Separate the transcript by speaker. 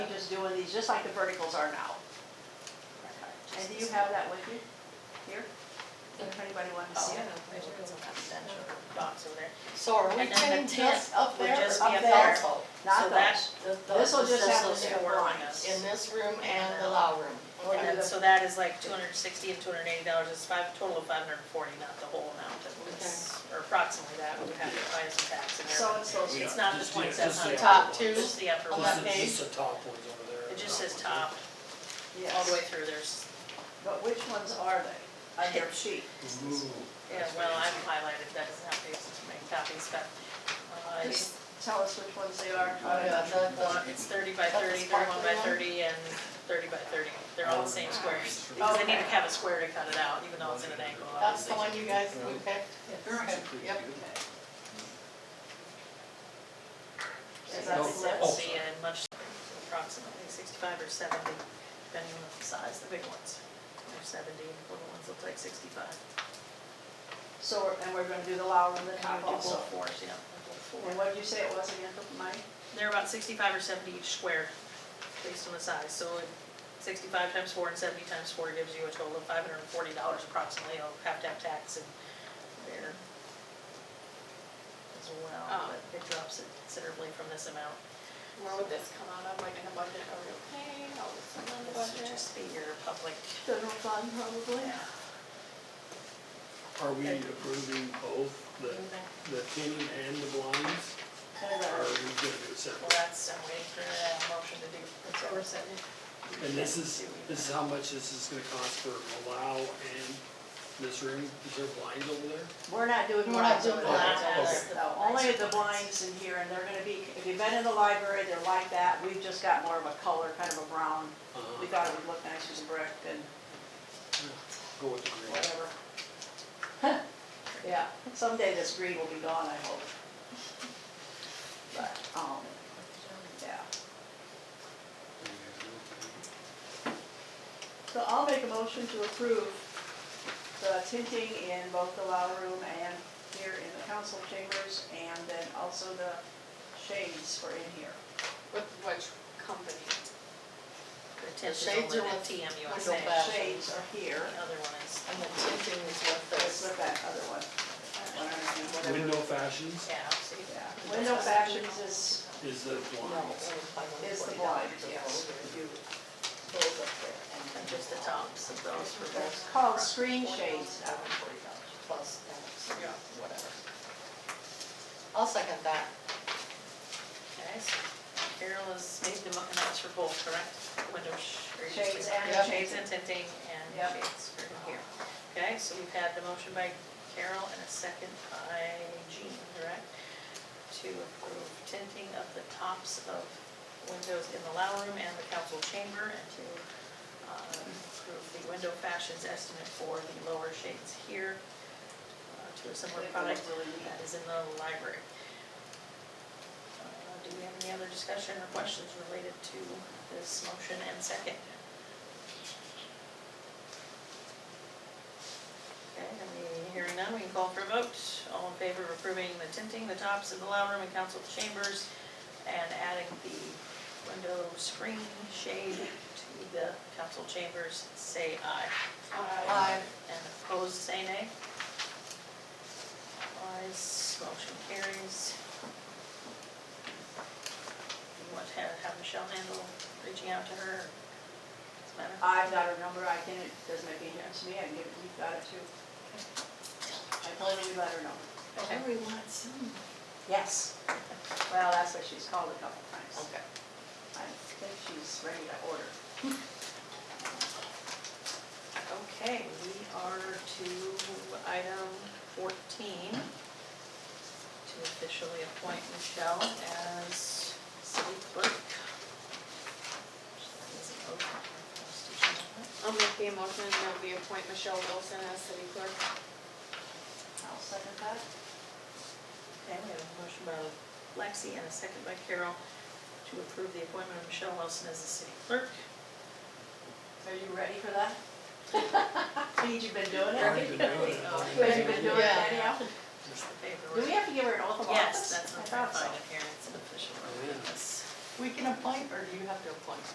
Speaker 1: doing these, just like the verticals are now. And do you have oh, that with you here? If anybody wants to see it?
Speaker 2: box over there.
Speaker 3: So are we
Speaker 2: And then
Speaker 3: pinning
Speaker 2: the
Speaker 3: just
Speaker 2: tent
Speaker 3: up
Speaker 2: would
Speaker 3: there,
Speaker 2: just be
Speaker 3: up
Speaker 2: a
Speaker 3: there?
Speaker 2: belt.
Speaker 1: Not
Speaker 2: So
Speaker 1: those.
Speaker 2: that- th- those-
Speaker 1: This will just
Speaker 2: those
Speaker 1: have
Speaker 2: are
Speaker 1: to be
Speaker 2: four
Speaker 1: blinds.
Speaker 3: In
Speaker 2: windows.
Speaker 3: this room and the law room?
Speaker 2: Or
Speaker 1: Under
Speaker 2: that-
Speaker 1: the-
Speaker 2: So that is like two hundred and sixty and two hundred and eighty dollars, it's five, total of five hundred and forty, not the whole amount that was, or approximately that, we would have to find some tax in there.
Speaker 1: So
Speaker 2: but
Speaker 1: it's those,
Speaker 2: It's
Speaker 4: Yeah,
Speaker 2: not the
Speaker 4: just the-
Speaker 2: point
Speaker 4: just
Speaker 2: seven
Speaker 4: the
Speaker 2: hundred.
Speaker 3: Top two
Speaker 2: Just the upper one,
Speaker 3: on that
Speaker 4: Just
Speaker 2: it
Speaker 4: the,
Speaker 3: page.
Speaker 4: just the top ones over there.
Speaker 2: just says
Speaker 4: Top
Speaker 2: top, all the way
Speaker 1: yes.
Speaker 2: through, there's,
Speaker 1: But which ones are they on your sheet?
Speaker 4: ones.
Speaker 5: Mm-hmm.
Speaker 4: Ooh,
Speaker 2: yeah,
Speaker 4: that's
Speaker 2: well, I've
Speaker 4: fancy.
Speaker 2: highlighted, that doesn't have pages to make copies, but, uh,
Speaker 1: Just tell us which ones they are.
Speaker 3: Oh, yeah, the- the-
Speaker 2: Well, It's thirty by
Speaker 3: That's the
Speaker 2: thirty, thirty-one by
Speaker 3: sparkly
Speaker 2: thirty, and thirty by thirty. They're all the same squares. Because they need to have a square to cut it out, even though it's in an angle,
Speaker 3: That's the
Speaker 2: obviously.
Speaker 3: one you guys, we picked?
Speaker 1: Okay.
Speaker 3: Yep.
Speaker 1: Is that
Speaker 4: No.
Speaker 1: six?
Speaker 4: Oh.
Speaker 2: Sixty and much, approximately sixty-five or seventy, depending on the size, the big ones. They're seventy, and the little ones look like sixty-five.
Speaker 1: So, we're- and we're gonna do the lower and the
Speaker 2: And
Speaker 1: top
Speaker 2: we do both
Speaker 1: also.
Speaker 2: fours, yeah, we do four.
Speaker 1: And what did you say it was again, Mike?
Speaker 2: They're about sixty-five or seventy each square, based on the size, so sixty-five times four and seventy times four gives you a total of five hundred and forty dollars approximately, you'll have to have tax in there as well,
Speaker 3: Oh.
Speaker 2: but it drops it considerably from this amount.
Speaker 6: Where would this come out of, like in a budget, are we okay, how would this come out of the
Speaker 2: This would
Speaker 6: budget?
Speaker 2: just be your public,
Speaker 1: General fund, probably.
Speaker 5: Are we approving both the, the tinning and the blinds? Or are we gonna do it
Speaker 2: well,
Speaker 5: separate?
Speaker 2: that's, I'm waiting for a motion to do.
Speaker 5: And this is, this is how much this is gonna cost for Malau and this room, is there blinds over there?
Speaker 1: We're not doing
Speaker 3: We're not
Speaker 1: blinds over
Speaker 3: doing
Speaker 1: there.
Speaker 3: blinds.
Speaker 2: That's the
Speaker 1: No, only
Speaker 2: nicer
Speaker 1: the blinds in here, and they're gonna be, if you've been in the library, they're like that. We've just got more of a color, kind of a brown. We
Speaker 5: Uh,
Speaker 1: thought it would look nice with brick and
Speaker 5: Go with the green.
Speaker 1: whatever. Yeah, someday this green will be gone, I hope. But, um, yeah. So I'll make a motion to approve the tinting in both the lounge room and here in the council chambers, and then also the shades were in here.
Speaker 6: With which company?
Speaker 2: The tent is
Speaker 3: shades
Speaker 2: only the
Speaker 3: are
Speaker 2: TM
Speaker 3: with window
Speaker 2: USA,
Speaker 3: back.
Speaker 2: the
Speaker 1: Shades are here,
Speaker 2: other one is,
Speaker 3: And the tinting is with
Speaker 1: let's
Speaker 3: this.
Speaker 1: look at that other one, one hundred and whatever.
Speaker 5: Window fashions
Speaker 2: yeah, see,
Speaker 1: Yeah, window fashions is,
Speaker 5: is the blinds.
Speaker 1: is the blind, yes.
Speaker 2: and just the tops of those for
Speaker 1: That's
Speaker 2: both.
Speaker 1: called screen shades now.
Speaker 3: Plus, that's
Speaker 2: Yeah.
Speaker 3: whatever. I'll second that.
Speaker 2: Okay, so Carol has made the, mo- and that's for both, correct? Window sh- or you
Speaker 1: Shades
Speaker 2: just-
Speaker 1: and
Speaker 2: yeah,
Speaker 1: shades.
Speaker 2: Shades and tinting and
Speaker 1: Yep.
Speaker 2: shades for here. Okay, so we've had the motion by Carol and a second by Jean, correct? To approve tinting of the tops of windows in the lounge room and the council chamber and to uh, approve the window fashions estimate for the lower shades here uh, to a similar product that is in the library. Uh, Do we have any other discussion or questions related to this motion and second? Okay, and we- hearing none, we can call for a vote. All in favor of approving the tinting, the tops of the lounge room and council chambers, and adding the window screen shade to the council chambers, say aye.
Speaker 3: Aye.
Speaker 2: And opposed, say nay. Ayes, motion carries. You want to have have Michelle handle reaching out to her? Does it matter?
Speaker 1: I've got her number, I can, it doesn't make any difference to me, I can give it, you've got it too. I told her we let her know.
Speaker 2: Okay.
Speaker 1: Yes. Well, that's what she's called a couple times.
Speaker 3: Okay.
Speaker 1: I think she's ready to order.
Speaker 2: Okay, we are to item fourteen, to officially appoint Michelle as city clerk.
Speaker 6: I'll make the motion that we appoint Michelle Wilson as city clerk.
Speaker 1: I'll second that.
Speaker 2: Okay, we have a motion by Lexi and a second by Carol to approve the appointment of Michelle Wilson as the city clerk.
Speaker 1: Are you ready for that? Means you've been doing
Speaker 5: I've
Speaker 1: it?
Speaker 5: been doing it.
Speaker 2: Oh,
Speaker 1: Because you've been doing it
Speaker 3: Yeah.
Speaker 1: anyhow?
Speaker 5: Just-
Speaker 1: Do we have to give her an oath of office?
Speaker 2: Yes, that's
Speaker 1: I
Speaker 2: what I'm
Speaker 1: thought so.
Speaker 2: finding here, it's an official.
Speaker 5: Oh, yeah.
Speaker 2: Yes.
Speaker 3: We can appoint, or do you have to appoint?